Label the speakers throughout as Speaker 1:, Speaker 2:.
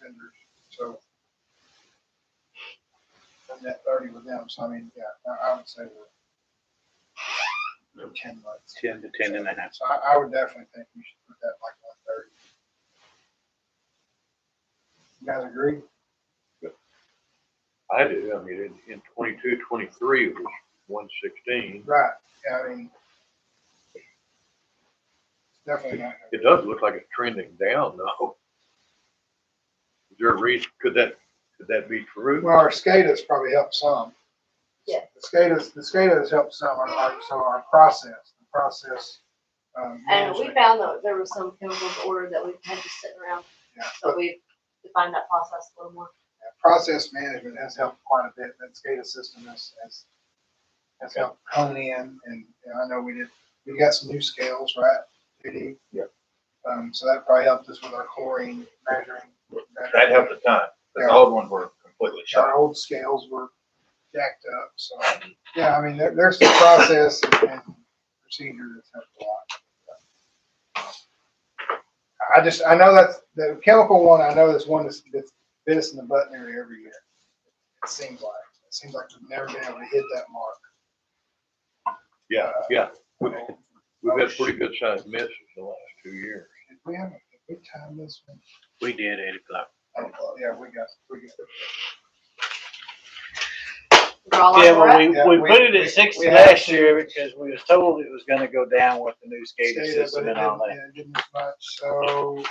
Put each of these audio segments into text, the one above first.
Speaker 1: vendors, so. And that thirty with them, so I mean, yeah, I, I would say we're ten months.
Speaker 2: ten to ten and a half.
Speaker 1: So I, I would definitely think you should put that like one thirty. You guys agree?
Speaker 3: I do, I mean, in, in twenty-two, twenty-three, it was one sixteen.
Speaker 1: Right, yeah, I mean. it's Definitely not.
Speaker 3: It does look like it's trending down though. Is there a reason, could that, could that be true?
Speaker 1: Well, our SCADA's probably helped some.
Speaker 4: Yeah.
Speaker 1: The SCADA's, the SCADA's helped some, our- our- so our process, the process. um,
Speaker 4: And we
Speaker 1: management.
Speaker 4: found that there was some chemicals ordered that we had just sitting around,
Speaker 1: Yeah,
Speaker 4: so
Speaker 1: but
Speaker 4: we defined that process a little more.
Speaker 1: Process management has helped quite a bit, that SCADA system has, has, has helped hone in, and and I know we did, we got some new scales, right? JD?
Speaker 5: Yeah.
Speaker 1: Um, so that probably helped us with our chlorine measuring.
Speaker 5: That helped a ton, because the
Speaker 1: Yeah.
Speaker 5: old ones were completely shot.
Speaker 1: Our old scales were jacked up, so, yeah, I mean, there, there's the process and procedure that's helped a lot. I just, I know that's, the chemical one, I know that's one that's, that's bit us in the butt nearly every year. It seems like, it seems like we've never been able to hit that mark.
Speaker 3: Yeah, yeah, we've,
Speaker 1: Did
Speaker 3: we've had pretty good sized misses the last two years.
Speaker 1: we have a good time this one?
Speaker 2: We did eight o'clock.
Speaker 1: I don't know. Yeah, we got, we got.
Speaker 4: Draw a line
Speaker 6: Yeah, well,
Speaker 4: where we're
Speaker 6: we,
Speaker 4: at.
Speaker 1: Yeah,
Speaker 6: we
Speaker 1: we-
Speaker 6: put it
Speaker 1: we-
Speaker 6: at sixty
Speaker 1: we had
Speaker 6: last
Speaker 1: to.
Speaker 6: year because we was told it was gonna go down with the new skating
Speaker 1: Data,
Speaker 6: system
Speaker 1: but it
Speaker 6: and all
Speaker 1: didn't-
Speaker 6: that.
Speaker 1: yeah, it didn't as much. So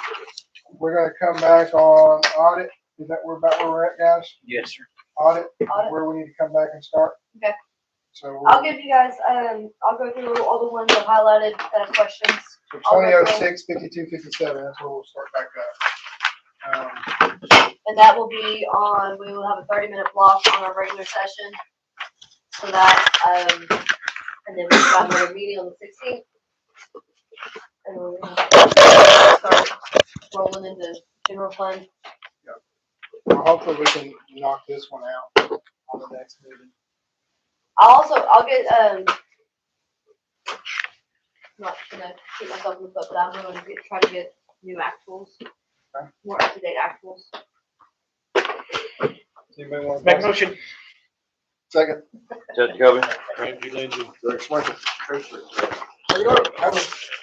Speaker 1: we're gonna come back on audit. Is that where about where we're at, guys?
Speaker 2: Yes, sir.
Speaker 1: Audit,
Speaker 4: Audit.
Speaker 1: where we need to come back and start?
Speaker 4: Okay.
Speaker 1: So
Speaker 4: I'll
Speaker 1: we're,
Speaker 4: give you guys, um, I'll go through all the ones that highlighted that have questions.
Speaker 1: so
Speaker 4: I'll
Speaker 1: twenty
Speaker 4: go
Speaker 1: oh
Speaker 4: through.
Speaker 1: six, fifty-two, fifty-seven, that's where we'll start back up. Um,
Speaker 4: And that will be on, we will have a thirty minute block on our regular session. So that, um, and then we've got another meeting on the sixteenth. And we're gonna start rolling into general fund.
Speaker 1: well, hopefully we can knock this one out on the next meeting.
Speaker 4: I'll also, I'll get, um, not gonna keep myself in the book, but I'm gonna get, try to get new actuals,
Speaker 1: Okay.
Speaker 4: more up to date actuals.
Speaker 1: Does anybody want to-
Speaker 6: Make a motion.
Speaker 1: Second.
Speaker 5: Judge Kobe?
Speaker 3: Randy Lindsay.
Speaker 1: There you go. Have a-